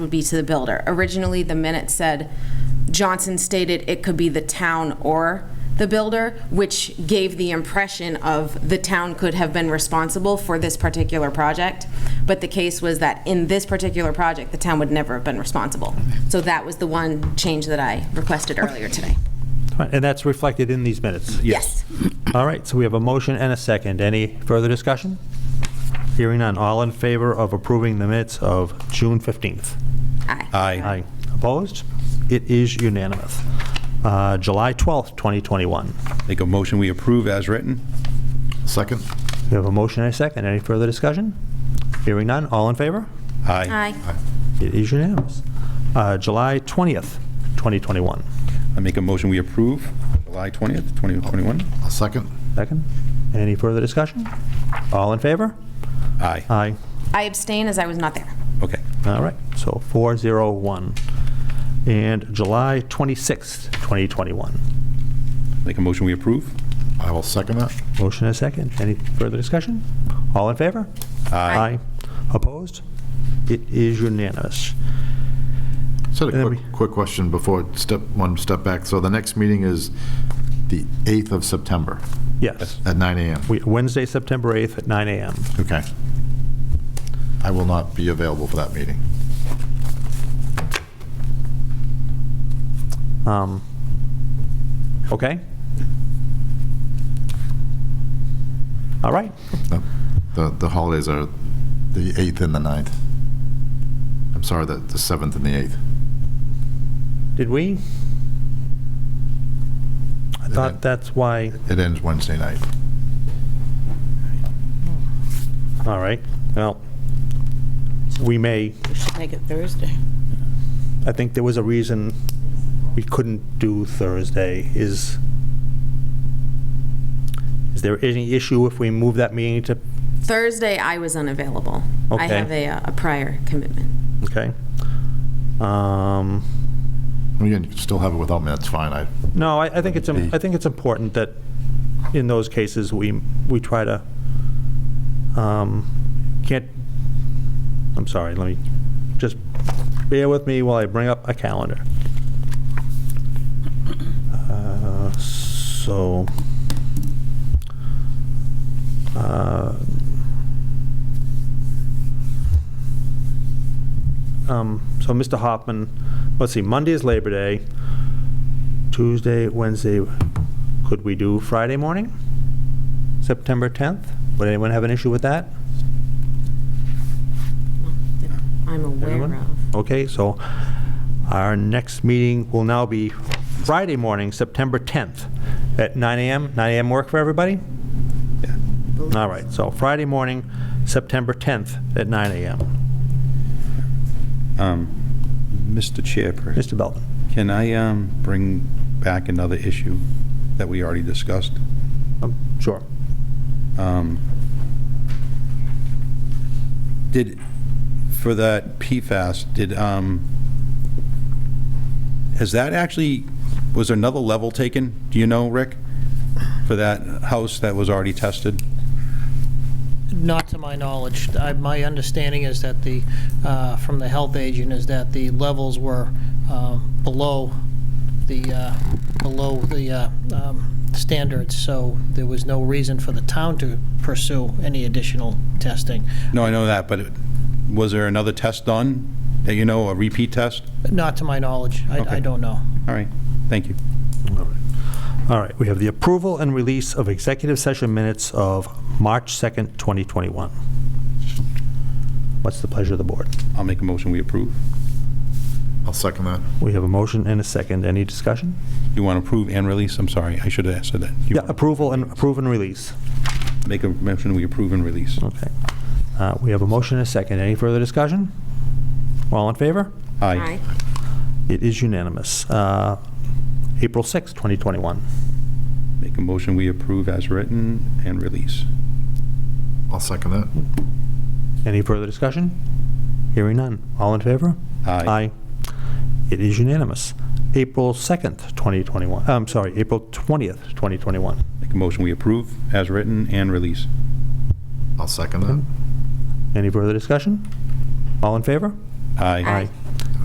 would be to the builder. Originally, the minute said Johnson stated it could be the town or the builder, which gave the impression of the town could have been responsible for this particular project. But the case was that in this particular project, the town would never have been responsible. So that was the one change that I requested earlier today. Fine, And that's reflected in these minutes? Yes. All right, so we have a motion and a second. Any further discussion? Hearing none. All in favor of approving the minutes of June 15th? Aye. Aye. Aye. Opposed? It is unanimous. Uh, July 12th, 2021. Make a motion, we approve as written. Second? We have a motion and a second. Any further discussion? Hearing none. All in favor? Aye. Aye. It is unanimous. Uh, July 20th, 2021. I make a motion, we approve July 20th, 2021. A second? Second. Any further discussion? All in favor? Aye. Aye. I abstain as I was not there. Okay. All right, so 401. And July 26th, 2021. Make a motion, we approve. I will second that. Motion and a second. Any further discussion? All in favor? Aye. Opposed? It is unanimous. Just had And a then quick, quick question before step, one step back. So the next meeting is the 8th of September Yes. at 9 AM. We- Wednesday, September 8th at 9 a.m. Okay. I will not be available for that meeting. Um, Okay? All right, No, The, the holidays are the 8th and the 9th. I'm sorry, the, the 7th and the 8th. did we? I Yeah. thought that's why, It ends Wednesday night. all right, well, we may We should make it Thursday. I think there was a reason we couldn't do Thursday is, is there any issue if we move that meeting to, Thursday, I was unavailable. I Okay. have a, uh, a prior commitment. okay? Um, Again, you can still have it without me, that's fine. I, No, I, I think it's, im- I think it's important that in those cases, we, we try to, um, can't, I'm sorry, let me, just bear with me while I bring up a calendar. Uh, So, uh, um, so Mr. Hoffman, let's see, Monday is Labor Day. Tuesday, Wednesday, could we do Friday morning? September 10th? Would anyone have an issue with that? that I'm aware Anyone? of. Okay, so our next meeting will now be Friday morning, September 10th, at 9 AM. 9 AM work for everybody? Yeah. All right, so Friday morning, September 10th, at 9 AM. Um, Mr. Chairperson, Mr. Belvin? can I um, bring back another issue that we already discussed? Um, Sure. Um, Did, for that PFAS, did, um, has that actually, was there another level taken? Do you know, Rick? For that house that was already tested? Not to my knowledge. I- My understanding is that the, uh, from the health agent, is that the levels were um, below the, uh, below the uh, um, standards, so there was no reason for the town to pursue any additional testing. No, I know that, but it- was there another test done? That you know, a repeat test? Not to my knowledge. I I Okay. don't know. All right, thank you. All right. All right, we have the approval and release of executive session minutes of March 2nd, 2021. What's the pleasure of the board? I'll make a motion, we approve. I'll second that. We have a motion and a second. Any discussion? You want to approve and release? I'm sorry, I should have said that. You Yeah, want- approval and, approve and release. Make a motion, we approve and release. Okay. Uh, We have a motion and a second. Any further discussion? All in favor? Aye. It is unanimous. Uh, April 6th, 2021. Make a motion, we approve as written and release. I'll second that. Any further discussion? Hearing none. All in favor? Aye. It is unanimous. April 2nd, 2021, I'm sorry, April 20th, 2021. Make a motion, we approve as written and release. I'll second that. Any further discussion? All in favor? Aye. Aye.